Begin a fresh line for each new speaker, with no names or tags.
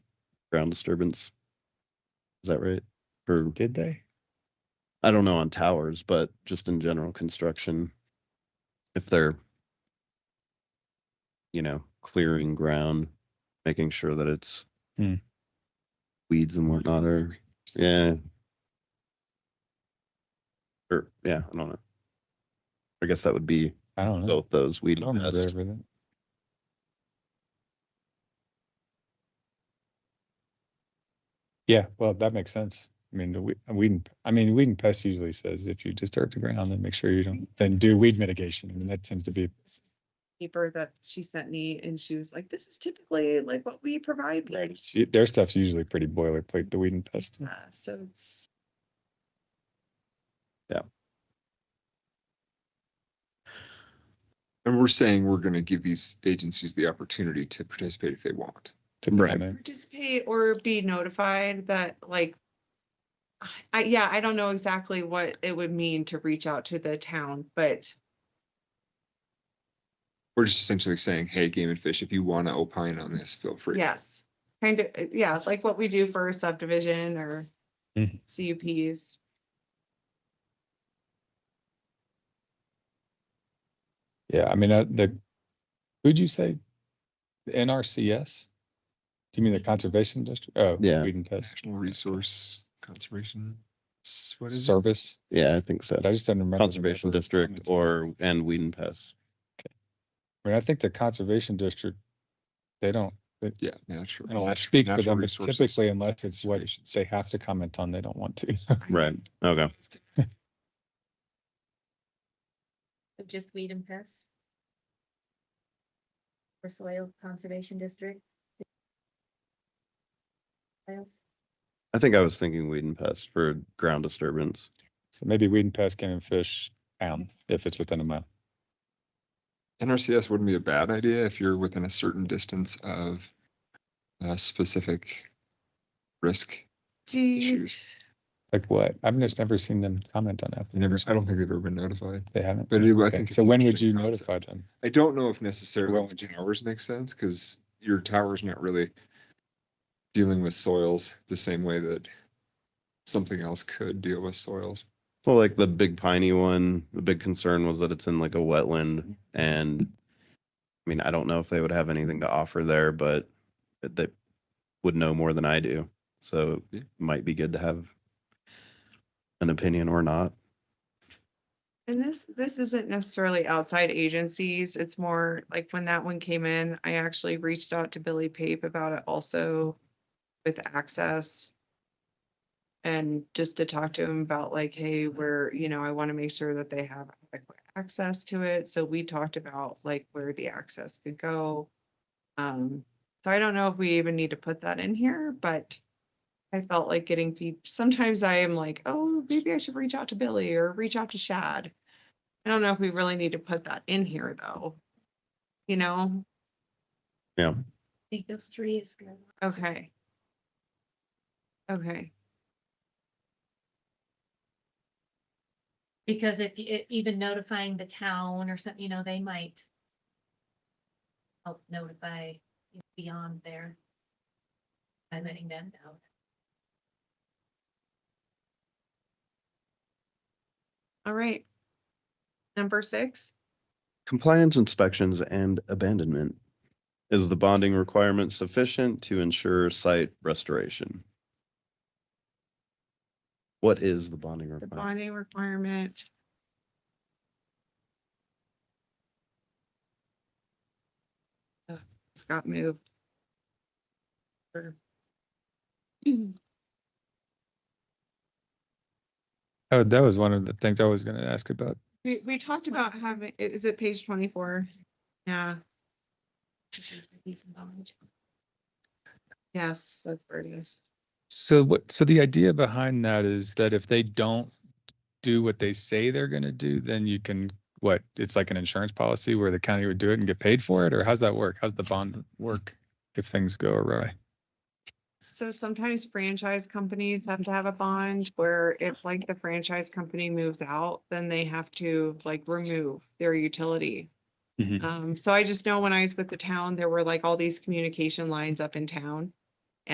ground disturbance. Is that right? For,
Did they?
I don't know on towers, but just in general construction. If they're, you know, clearing ground, making sure that it's
Hmm.
weeds and whatnot are, yeah. Or, yeah, I don't know. I guess that would be
I don't know.
both those
I
weed
don't
and pest.
observe it. Yeah, well, that makes sense. I mean, the we, uh, weed, and- I mean, weed and pest usually says if you disturb the ground, then make sure you don't, then do weed mitigation. I mean, that tends to be,
paper that she sent me and she was like, this is typically like what we provide. people."
it's- their stuff's usually pretty boilerplate, the weed and pest.
Uh, So it's.
And we're saying we're gonna give these agencies the opportunity to participate if they want.
to
Right.
comment.
Participate or be notified that like. I, yeah, I don't know exactly what it would mean to reach out to the town, but
We're just essentially saying, hey, Game and Fish, if you wanna opine on this, feel free.
yes. Kind of, uh, yeah, like what we do for a subdivision or
Mhm.
CUPs.
Yeah, I mean, uh, the, who'd you say? The NRCS? Do you mean the Conservation District? Oh,
Yeah.
Weed and Pest
National Resource Conservation, s- what is it?
Service,
Yeah, I think so.
but I just don't remember. the
Conservation
number.
District or, and weed and pest.
I mean, I think the Conservation District, they don't,
Yeah, natural.
I don't speak with
natural
them but
resources.
typically unless it's what
Conservation
they have to comment on, they don't want to.
Right, okay.
So Just weed and pests? For soil conservation district? Yes.
I think I was thinking weed and pest for ground disturbance.
So maybe weed and pest, game and fish, pound, if it's within a mile.
NRCS wouldn't be a bad idea if you're within a certain distance of a specific risk
Do you,
issues.
Like what? I've just never seen them comment on that.
They Never, I don't think they've ever been notified,
They haven't.
but it- I
Okay,
think. it's
So
an
when would
interesting
you
concept.
notify them?
I don't know if necessarily only towers make sense because your tower's not really dealing with soils the same way that something else could deal with soils.
Well, like the big piney one, the big concern was that it's in like a wetland and I mean, I don't know if they would have anything to offer there, but it- they would know more than I do. So
Yeah.
it might be good to have an opinion or not.
and this, this isn't necessarily outside agencies. It's more like when that one came in, I actually reached out to Billy Pape about it also. with access. And just to talk to him about like, hey, we're, you know, I want to make sure that they have adequate access to it. So we talked about like where the access could go. Um, so I don't know if we even need to put that in here, but I felt like getting feed, sometimes I am like, oh, maybe I should reach out to Billy or reach out to Shad. I don't know if we really need to put that in here though. You know,
I think those three is good.
okay. Okay.
Because if, you- e- even notifying the town or something, you know, they might help notify beyond there by letting them know.
All right. Number six,
Compliance inspections and abandonment. Is the bonding requirement sufficient to ensure site restoration? What is the bonding
the
requirement?
bonding requirement. Ugh, It's got moved. Sure.
Oh, that was one of the things I was gonna ask about.
We, we talked about having, i- is it page twenty-four? Yeah,
These involved.
yes, that's where it is.
So what, so the idea behind that is that if they don't do what they say they're gonna do, then you can, what, it's like an insurance policy where the county would do it and get paid for it, or how's that work? How's the bond work if things go awry?
So sometimes franchise companies have to have a bond where if like the franchise company moves out, then they have to like remove their utility.
Mhm.
Um, so I just know when I was with the town, there were like all these communication lines up in town.